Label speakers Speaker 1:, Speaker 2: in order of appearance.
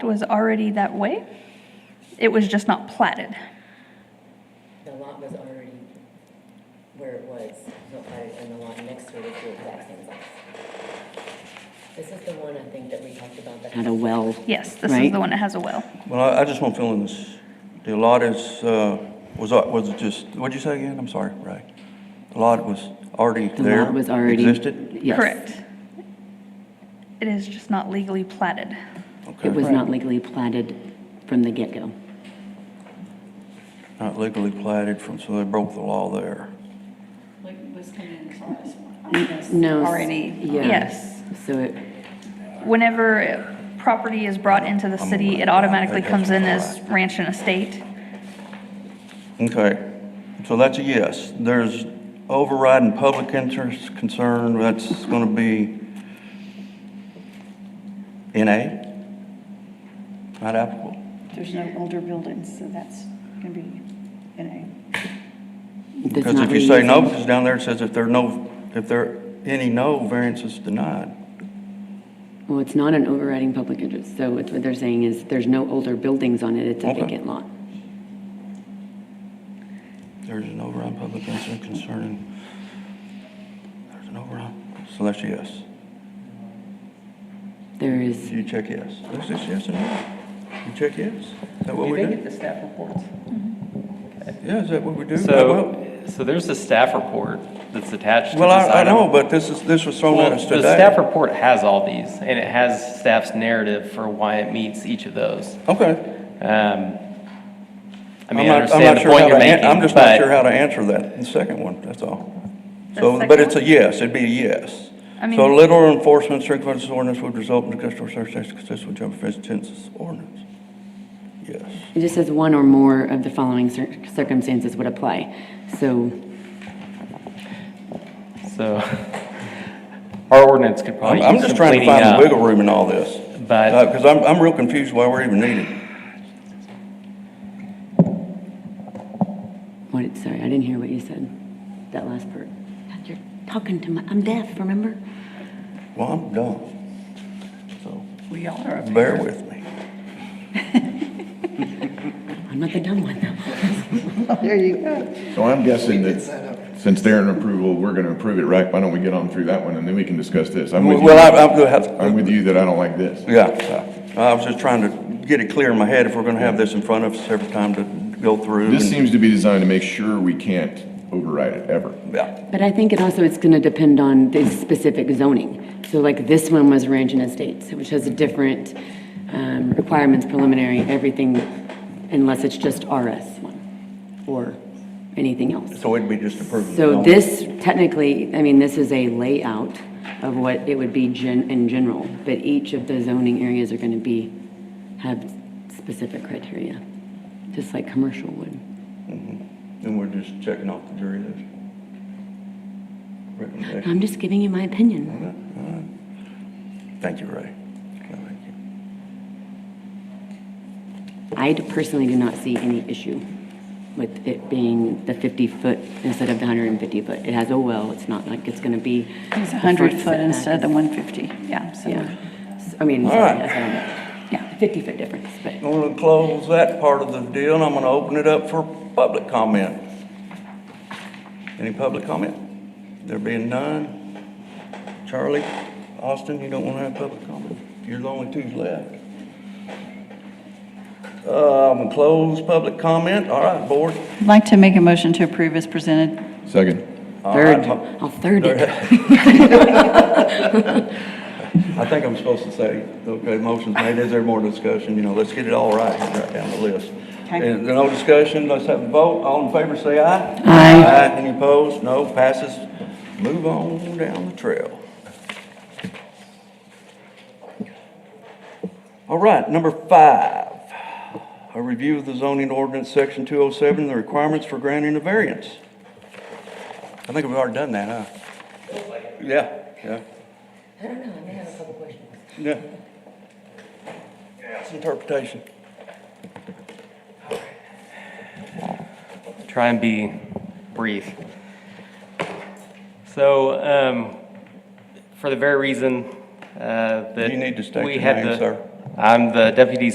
Speaker 1: It was already that way. It was just not platted.
Speaker 2: The lot was already where it was, not platted, and the lot next to it is the exact same size. This is the one I think that we talked about that
Speaker 3: Had
Speaker 2: had
Speaker 3: a well.
Speaker 1: Yes, this is
Speaker 3: Right.
Speaker 1: the one that has a well.
Speaker 4: Well, I, I just want feeling this. The lot is, uh, was, al- was it just, what'd you say again? I'm sorry, Ray. The lot was already
Speaker 3: The
Speaker 4: there?
Speaker 3: lot was already.
Speaker 4: Existed?
Speaker 3: Yes.
Speaker 1: Correct. It is just not legally platted.
Speaker 4: Okay.
Speaker 3: It was not legally platted from the get-go.
Speaker 4: Not legally platted from, so they broke the law there.
Speaker 5: Like was coming in for us. I mean, that's
Speaker 3: No. s-
Speaker 5: Already.
Speaker 3: yeah.
Speaker 1: Yes.
Speaker 3: So it,
Speaker 1: Whenever property is brought into the city, it automatically comes in as ranch and estate.
Speaker 4: Okay, so that's a yes. There's overriding public interest concern, that's gonna be NA? Not applicable?
Speaker 5: There's no older buildings, so that's going to be in
Speaker 3: does
Speaker 4: Because
Speaker 3: not
Speaker 4: if you say no,
Speaker 3: reuse it.
Speaker 4: because down there it says if there are no, if there are any no, variances denied.
Speaker 3: Well, it's not an overriding public interest. So it's what they're saying is there's no older buildings on it. It's a
Speaker 4: Okay.
Speaker 3: vacant lot.
Speaker 4: There's an override public concern concerning, there's an override, so that's a yes.
Speaker 3: There is,
Speaker 4: You check yes. Is this yes or no? You check yes? Is that what
Speaker 6: Do
Speaker 4: we
Speaker 6: they
Speaker 4: do?
Speaker 6: get the staff reports?
Speaker 4: Yeah, is that what we do? Well-
Speaker 7: So, so there's a staff report that's attached to this
Speaker 4: Well, I, I
Speaker 7: item.
Speaker 4: know, but this is, this was thrown
Speaker 7: Well,
Speaker 4: at us
Speaker 7: The staff
Speaker 4: today.
Speaker 7: report has all these, and it has staff's narrative for why it meets each of those.
Speaker 4: Okay.
Speaker 7: Um, I
Speaker 4: I'm
Speaker 7: mean,
Speaker 4: not-
Speaker 7: I
Speaker 4: I'm
Speaker 7: understand
Speaker 4: not
Speaker 7: the
Speaker 4: sure
Speaker 7: point
Speaker 4: how
Speaker 7: you're
Speaker 4: to an-
Speaker 7: making,
Speaker 4: I'm just not sure
Speaker 7: but
Speaker 4: how to answer that, the second one, that's all.
Speaker 1: The
Speaker 4: So, but
Speaker 1: second
Speaker 4: it's a
Speaker 1: one?
Speaker 4: yes, it'd be a yes.
Speaker 1: I mean-
Speaker 4: So literal enforcement, strict compliance with ordinance would result in the customer service tax consistent with general offense tenses ordinance. Yes.
Speaker 3: it just says one or more of the following cir- circumstances would apply. So
Speaker 7: so our ordinance could probably
Speaker 4: I'm, I'm
Speaker 7: use some
Speaker 4: just trying to
Speaker 7: cleaning
Speaker 4: find the
Speaker 8: uh,
Speaker 4: wiggle
Speaker 7: up.
Speaker 4: room in all this.
Speaker 7: But-
Speaker 4: Uh, cause I'm, I'm real confused why we're even needed.
Speaker 3: What, did- sorry, I didn't hear what you said, that last part. God, You're talking to my, I'm deaf, remember?
Speaker 4: Well, I'm dumb. So,
Speaker 6: We all are up here.
Speaker 4: bear with me.
Speaker 3: I'm not the dumb one, though.
Speaker 8: So I'm guessing that since they're in approval, we're gonna approve it, right? Why don't we get on through that one and then we can discuss this? I'm with you.
Speaker 4: Well, I, I'm, gonna
Speaker 8: I'm
Speaker 4: have-
Speaker 8: with you that I don't like this.
Speaker 4: yeah, I was just trying to get it clear in my head if we're gonna have this in front of us every time to go through.
Speaker 8: This
Speaker 4: and-
Speaker 8: seems to be designed to make sure we can't override it ever.
Speaker 4: Yeah,
Speaker 3: But I think it also, it's gonna depend on the specific zoning. So like this one was ranch and estates, which has a different, um, requirements, preliminary, everything, unless it's just RS one or anything else.
Speaker 4: so it'd be just approving. the
Speaker 3: So
Speaker 4: zone.
Speaker 3: this technically, I mean, this is a layout of what it would be gen, in general, but each of the zoning areas are gonna be, have specific criteria, just like commercial would.
Speaker 4: And we're just checking off the jury list. Recommendation.
Speaker 3: I'm just giving you my opinion.
Speaker 4: Thank you, Ray. Okay, thank you.
Speaker 3: I personally do not see any issue with it being the 50-foot instead of the 150-foot. It has a well, it's not like it's gonna be.
Speaker 5: It's
Speaker 3: the front
Speaker 5: 100 foot
Speaker 3: setback
Speaker 5: instead of the
Speaker 3: is-
Speaker 5: 150, yeah, so,
Speaker 3: Yeah, S- I mean,
Speaker 4: All
Speaker 3: sorry,
Speaker 4: right.
Speaker 3: that's, yeah, 50-foot difference, but.
Speaker 4: I'm gonna close that part of the deal, and I'm gonna open it up for public comment. Any public comment? There being none? Charlie, Austin, you don't wanna have public comment? You're the only two left. Um, close public comment, all right, board.
Speaker 5: I'd like to make a motion to approve as presented.
Speaker 8: Second,
Speaker 4: All
Speaker 3: Third,
Speaker 4: right,
Speaker 3: I'll third it.
Speaker 4: I think I'm supposed to say, okay, motion's made, is there more discussion? You know, let's get it all right, here, right down the list.
Speaker 5: Okay.
Speaker 4: Is there no discussion, let's have a vote, all in favor, say aye.
Speaker 5: Aye.
Speaker 4: Any opposed? No, passes. Move on down the trail. All right, number five, a review of the zoning ordinance, section 207, the requirements for granting a variance. I think we've already done that, huh? Yeah, yeah.
Speaker 2: I don't know, I may have a couple questions.
Speaker 4: Yeah. It's interpretation.
Speaker 7: Try and be brief. So, um, for the very reason, uh, that.
Speaker 4: You need to state
Speaker 7: we
Speaker 4: your
Speaker 7: had
Speaker 4: name,
Speaker 7: the-
Speaker 4: sir.
Speaker 7: I'm the deputy